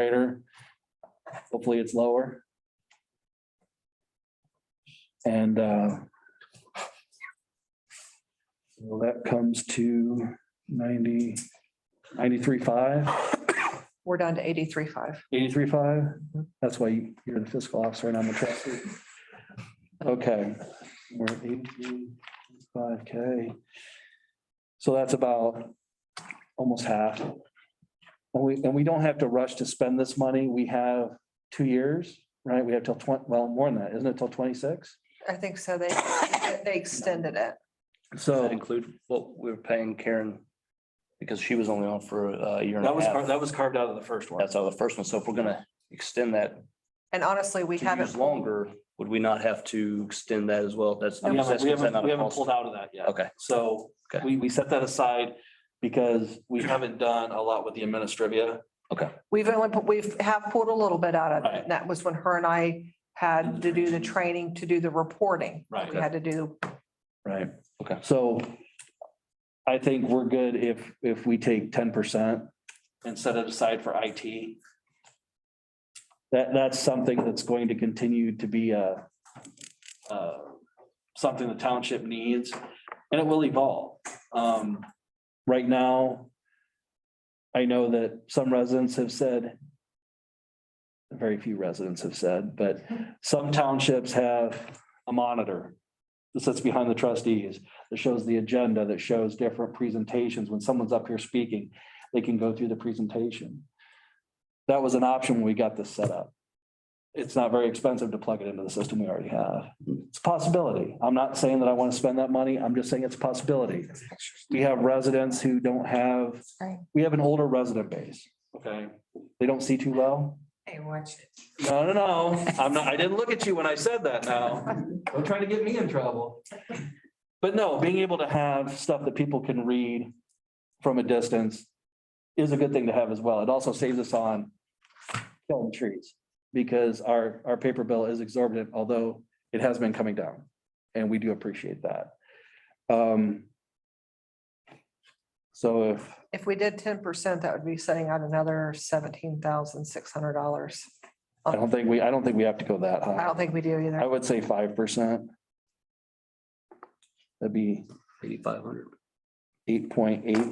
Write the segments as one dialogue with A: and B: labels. A: generator. Hopefully it's lower. And uh, well, that comes to ninety, ninety-three five,
B: We're down to eighty-three five.
A: eighty-three five. That's why you're the fiscal officer and I'm the trustee. Okay, we're at eighty-five K. So that's about almost half. And we, and we don't have to rush to spend this money. We have two years, right? We have till twenty, well, more than that, isn't it till twenty-six?
B: I think so. They, they extended it.
C: Does that
A: So
C: include what we were paying Karen? Because she was only on for a year and
D: That
C: a
D: was,
C: half.
D: car- that was carved out of the first one.
C: That's all the first one. So if we're gonna extend that
B: And honestly, we
C: to
B: haven't.
C: use longer, would we not have to extend that as well? That's.
D: We
C: I'm just
D: haven't, we
C: asking, is that
D: haven't,
C: not
D: we
C: a
D: haven't
C: cost?
D: pulled out of that yet.
C: Okay,
D: So
C: Okay.
D: we, we set that aside because we haven't done a lot with the administrivia.
B: We've only, put- we've have pulled a little bit out of it.
D: Right.
B: And that was when her and I had to do the training, to do the reporting.
D: Right.
B: We had to do,
A: Right.
C: Okay.
A: So I think we're good if, if we take ten percent.
D: And set it aside for IT.
A: That, that's something that's going to continue to be a,
D: uh, Something the township needs and it will evolve. Um,
A: right now. I know that some residents have said. Very few residents have said, but some townships have a monitor. That sits behind the trustees, that shows the agenda, that shows different presentations. When someone's up here speaking, they can go through the presentation. That was an option when we got this set up. It's not very expensive to plug it into the system we already have. It's a possibility. I'm not saying that I want to spend that money. I'm just saying it's a possibility. We have residents who don't have,
E: Right.
A: we have an older resident base.
D: okay,
A: They don't see too well.
E: Hey, watch it.
D: no, no, no, I'm not, I didn't look at you when I said that now. Don't try to get me in trouble.
A: But no, being able to have stuff that people can read from a distance is a good thing to have as well. It also saves us on killing trees because our, our paper bill is exorbitant, although it has been coming down. And we do appreciate that. Um, So if
B: if we did ten percent, that would be setting out another seventeen thousand six hundred dollars.
A: I don't think we, I don't think we have to go that
B: I
A: high.
B: don't think we do
A: I
B: either.
A: would say five percent. That'd be
C: eighty-five hundred.
A: eight point eight.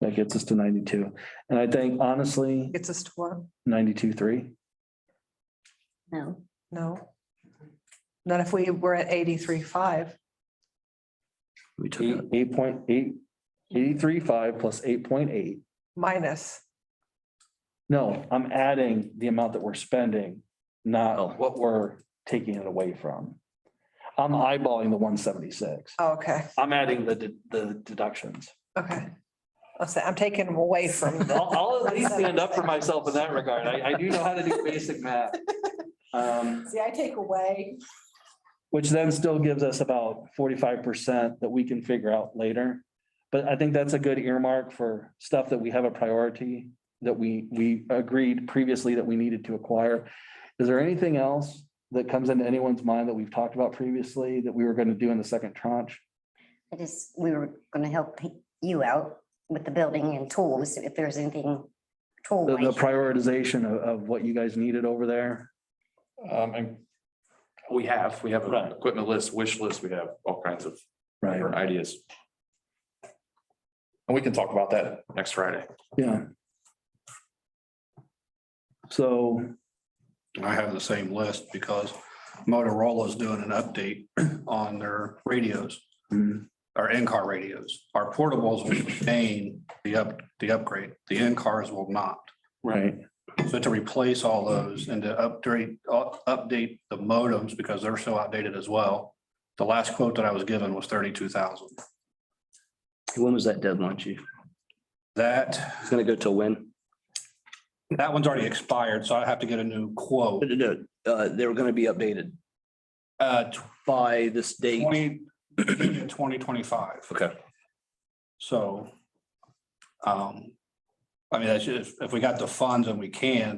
A: That gets us to ninety-two. And I think honestly,
B: Gets us to what?
A: ninety-two, three.
E: No.
B: No. Not if we were at eighty-three five.
C: We took
A: Eight
C: it.
A: eight point eight, eighty-three, five plus eight point eight.
B: minus.
A: No, I'm adding the amount that we're spending,
C: Oh.
A: not what we're taking it away from. I'm eyeballing the one seventy-six.
B: Oh, Okay,
D: Oh. I'm adding the, de- the deductions.
B: okay. I'll say, I'm taking them away from the.
D: I'll, I'll at least stand up for myself in that regard. I, I do know how to do basic math. Um,
E: See, I take away.
A: Which then still gives us about forty-five percent that we can figure out later. But I think that's a good earmark for stuff that we have a priority that we, we agreed previously that we needed to acquire. Is there anything else that comes into anyone's mind that we've talked about previously that we were going to do in the second tranche?
F: I just, we were gonna help you out with the building and tools, if there's anything tool
A: The, the prioritization of, of what you guys needed over there?
G: Um, and we have, we have
D: Right.
G: an equipment list, wish list, we have all kinds of different ideas. And we can talk about that next Friday.
A: Yeah. So,
H: I have the same list because Motorola's doing an update on their radios,
A: mm,
H: our in-car radios. Our portables will sustain the up, the upgrade. The in-cars will not.
A: right,
H: So to replace all those and to upgrade, uh, update the modems because they're so outdated as well. The last quote that I was given was thirty-two thousand.
C: When was that deadline, chief?
H: That,
C: It's gonna go till when?
H: that one's already expired, so I have to get a new quote.
C: Uh, they were gonna be updated
H: Uh,
C: by this date.
H: twenty, twenty twenty-five.
C: Okay.
H: So, um, I mean, that's just, if we got the funds and we can,